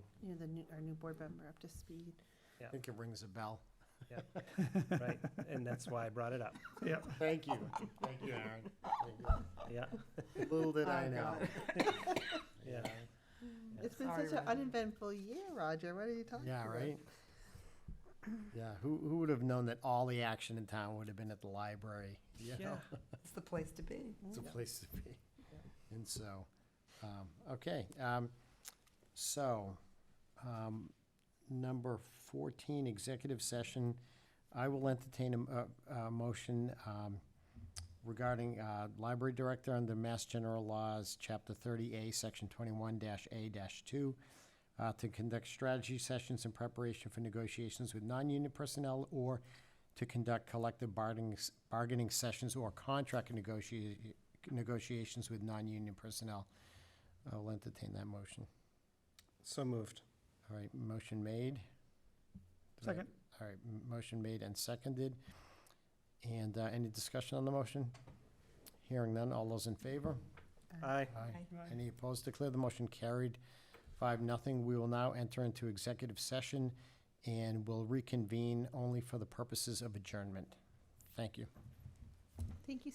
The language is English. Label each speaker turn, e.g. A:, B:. A: know, the new, our new board member up to speed.
B: I
C: think it rings a bell.
B: right? And that's why I brought it up.
C: Thank you. Thank you, Aaron. Thank you.
B: Yeah,
C: Little did I
A: Oh,
C: know.
B: yeah.
A: It's been
D: Sorry,
A: such an
D: Roger.
A: uneventful year, Roger. What are you talking
C: Yeah,
A: about?
C: right? Yeah, who, who would have known that all the action in town would have been at the library? you know?
B: Yeah.
D: It's the place to be.
C: It's a place to be. And so, um, okay, um, so, um, number fourteen, executive session. I will entertain a m- a, a, motion, um, regarding, uh, library director under Mass General Laws, Chapter thirty A, Section twenty-one dash A dash two, uh, to conduct strategy sessions in preparation for negotiations with non-union personnel or to conduct collective bargaining, s- bargaining sessions or contract negotia- negotiations with non-union personnel. I'll entertain that motion.
B: So moved.
C: All right, motion made. Did I-
E: Second.
C: All right, m- motion made and seconded. And uh, any discussion on the motion? Hearing none, all those in favor?
B: Aye.
D: Aye.
C: Any opposed? Declare the motion carried, five, nothing. We will now enter into executive session and will reconvene only for the purposes of adjournment. Thank you.
A: Thank you